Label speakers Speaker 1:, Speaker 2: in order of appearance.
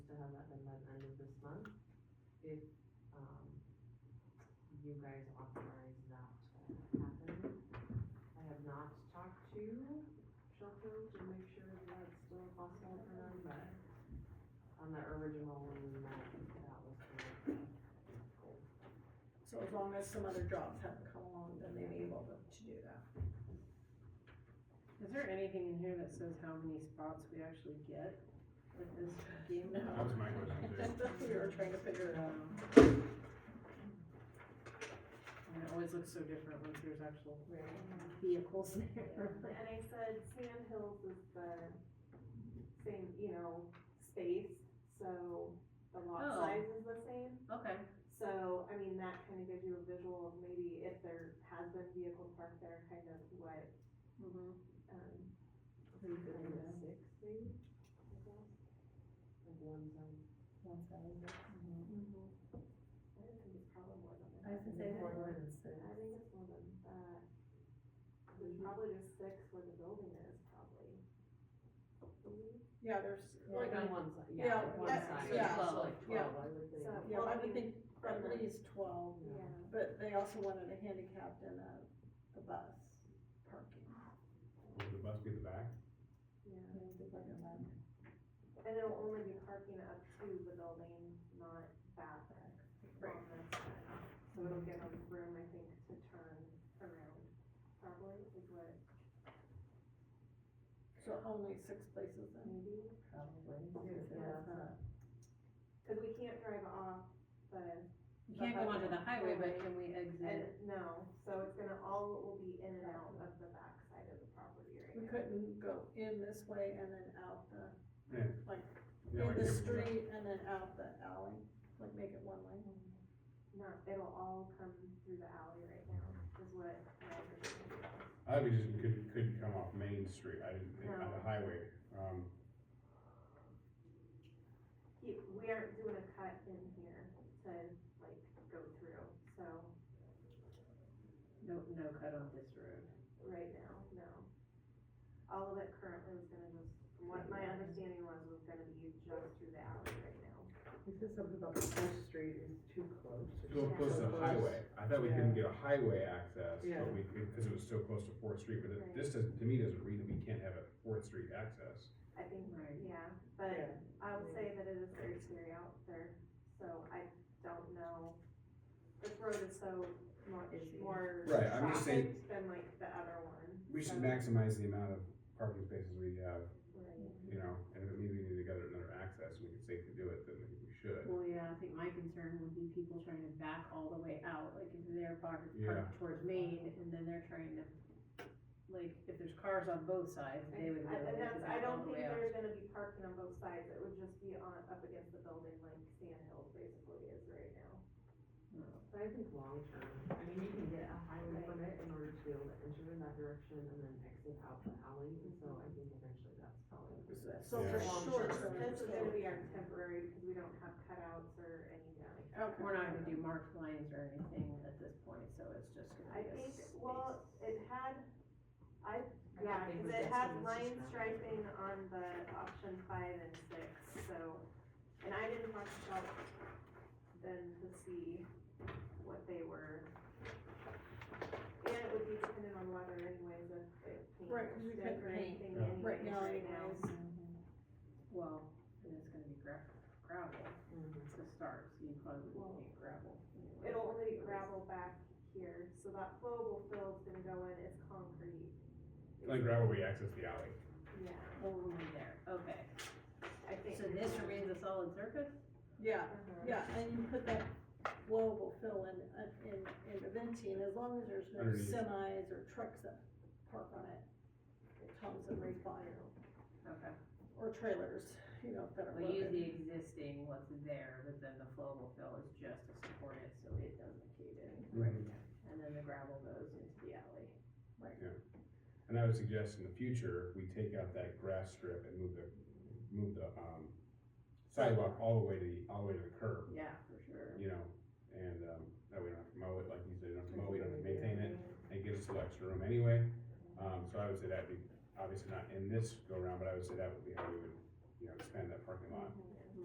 Speaker 1: if, um, you guys authorize that to happen. I have not talked to Shelco to make sure that that's still possible for them, but on the original one, that, that was the.
Speaker 2: So as long as some other jobs haven't come along, then they'd be able to do that.
Speaker 3: Is there anything in here that says how many spots we actually get with this game?
Speaker 4: That was my question too.
Speaker 2: We were trying to figure it out.
Speaker 3: And it always looks so different once there's actual
Speaker 2: Right.
Speaker 3: vehicles there.
Speaker 5: And I said, Sand Hills is the same, you know, space, so the lot
Speaker 3: Oh.
Speaker 5: size is the same.
Speaker 3: Okay.
Speaker 5: So, I mean, that kind of gives you a visual of maybe if there has been vehicles parked there, kind of what,
Speaker 3: Mhm.
Speaker 5: um,
Speaker 1: Six, maybe? I guess. Like one time.
Speaker 3: Mm-hmm.
Speaker 5: I think it's probably more than
Speaker 2: I
Speaker 5: that.
Speaker 2: was gonna say that.
Speaker 5: I think it's more than that. There's probably just six where the building is, probably.
Speaker 2: Yeah, there's,
Speaker 1: Like on
Speaker 2: like,
Speaker 1: one side,
Speaker 2: Yeah,
Speaker 1: yeah, like one
Speaker 2: yeah,
Speaker 1: side.
Speaker 2: yeah.
Speaker 1: So like
Speaker 2: Yeah.
Speaker 1: twelve, I would think.
Speaker 5: So-
Speaker 2: yeah, I would think at least twelve,
Speaker 5: Yeah.
Speaker 2: but they also wanted a handicapped and a, a bus parking.
Speaker 4: Would the bus be the back?
Speaker 5: Yeah. And it'll only be parking up to the building, not back
Speaker 2: Right.
Speaker 5: on this side. So it'll give them room, I think, to turn around, probably, is what,
Speaker 2: So only six places then.
Speaker 5: maybe.
Speaker 2: Yeah.
Speaker 5: Cause we can't drive off the,
Speaker 3: You can't go onto the highway, but can we
Speaker 5: and,
Speaker 3: exit?
Speaker 5: no, so it's gonna, all will be in and out of the back side of the property
Speaker 2: We
Speaker 5: right now.
Speaker 2: couldn't go in this way and then out the,
Speaker 4: Yeah,
Speaker 2: in
Speaker 4: like
Speaker 2: the
Speaker 4: if-
Speaker 2: street and then out the alley, like make it one lane.
Speaker 5: Not, it'll all come through the alley right now, is what my understanding is.
Speaker 4: I thought we just couldn't, couldn't come off Main Street, I didn't think, on
Speaker 5: No.
Speaker 4: the highway, um,
Speaker 5: He, we aren't doing a cut in here to like go through, so,
Speaker 3: No, no cut on this road.
Speaker 5: right now, no. All of it currently was gonna just, from what my understanding was, was gonna be just through the alley right now.
Speaker 1: It says something about the first street is too close.
Speaker 4: so close to the highway. I thought we couldn't get a highway access,
Speaker 1: Yeah.
Speaker 4: but we, because it was so close to Fourth Street, but
Speaker 5: Right.
Speaker 4: it- this doesn't, to me, doesn't read that we can't have a Fourth Street access.
Speaker 5: I think,
Speaker 3: Right.
Speaker 5: yeah, but I would say that it is very scary out there, so I don't know. This road is so much
Speaker 1: Busy.
Speaker 5: more
Speaker 4: Right, I'm just saying-
Speaker 5: trafficked than like the other one.
Speaker 4: We should
Speaker 5: so-
Speaker 4: maximize the amount of parking spaces we have,
Speaker 5: Mm-hmm. Right.
Speaker 3: Mm-hmm.
Speaker 4: you know, and if it means we need to get another access, we can safely do it, then we we should.
Speaker 3: Well, yeah, I think my concern would be people trying to back all the way out, like if they're parked,
Speaker 4: Yeah.
Speaker 3: parked towards Main and then they're trying to, like, if there's cars on both sides,
Speaker 5: I-
Speaker 3: they would.
Speaker 5: I-
Speaker 3: be able
Speaker 5: And
Speaker 3: to
Speaker 5: that's, I
Speaker 3: back all
Speaker 5: don't
Speaker 3: the
Speaker 5: think
Speaker 3: way out.
Speaker 5: there's gonna be parking on both sides, it would just be on, up against the building like Sand Hill basically is right now.
Speaker 1: But I think long term, I mean, you can get a highway permit in order to be able to enter in that direction and then exit out the alley, and so I think eventually that's probably.
Speaker 2: So for
Speaker 4: Yeah.
Speaker 2: sure,
Speaker 5: This is
Speaker 2: so,
Speaker 5: gonna be our temporary, because we don't have cutouts or anything like that.
Speaker 2: okay.
Speaker 3: Oh, We're not gonna do marked lines or anything at this point, so it's just gonna
Speaker 5: I
Speaker 3: be a
Speaker 5: think,
Speaker 3: space.
Speaker 5: well, it had, I,
Speaker 1: I
Speaker 5: yeah,
Speaker 1: think
Speaker 5: cause
Speaker 1: we
Speaker 5: it
Speaker 1: did
Speaker 5: had
Speaker 1: some
Speaker 5: line
Speaker 1: research on it.
Speaker 5: striping on the option five and six, so, and I didn't talk about them to see what they were. And it would be dependent on weather anyways, if it paints
Speaker 2: Right, 'cause we
Speaker 5: stick
Speaker 2: couldn't
Speaker 5: or
Speaker 2: paint
Speaker 5: anything
Speaker 4: Yeah.
Speaker 5: anyways
Speaker 2: Right now
Speaker 5: right now.
Speaker 2: anyways.
Speaker 1: Mm-hmm.
Speaker 3: Well, and it's gonna be gra- gravel
Speaker 1: Mhm.
Speaker 3: to start, so you probably
Speaker 5: Well,
Speaker 3: wouldn't need gravel. anyway.
Speaker 5: It'll only be gravel back here, so that flowable fill's gonna go in, it's concrete,
Speaker 4: Like gravel, we access the alley.
Speaker 5: yeah,
Speaker 3: Oh, we're there, okay,
Speaker 5: I think.
Speaker 3: so this remains a solid surface?
Speaker 2: Yeah,
Speaker 5: Uh-huh.
Speaker 2: yeah, and you put that global fill in, uh, in, in the venting, as long as there's no
Speaker 4: Underneath.
Speaker 2: semis or trucks that park on it. It comes and right by,
Speaker 3: Okay,
Speaker 2: or trailers, you know, that are
Speaker 3: we use
Speaker 2: loaded.
Speaker 3: the existing what's there, but then the flowable fill is just to support it, so it doesn't cave in. And then the gravel goes into the alley.
Speaker 4: And I would suggest in the future, we take out that grass strip and move the, move the, um, sidewalk all the way to, the all the way to the curb,
Speaker 3: Yeah, for sure.
Speaker 4: you know? And, um, that we don't have to mow it, like you said, you don't have to mow, we don't have to maintain it, and it gives us a little extra room anyway. Um, so I would say that'd be, obviously not in this go around, but I would say that would be how we would, you know, expand that parking lot.
Speaker 5: Mhm.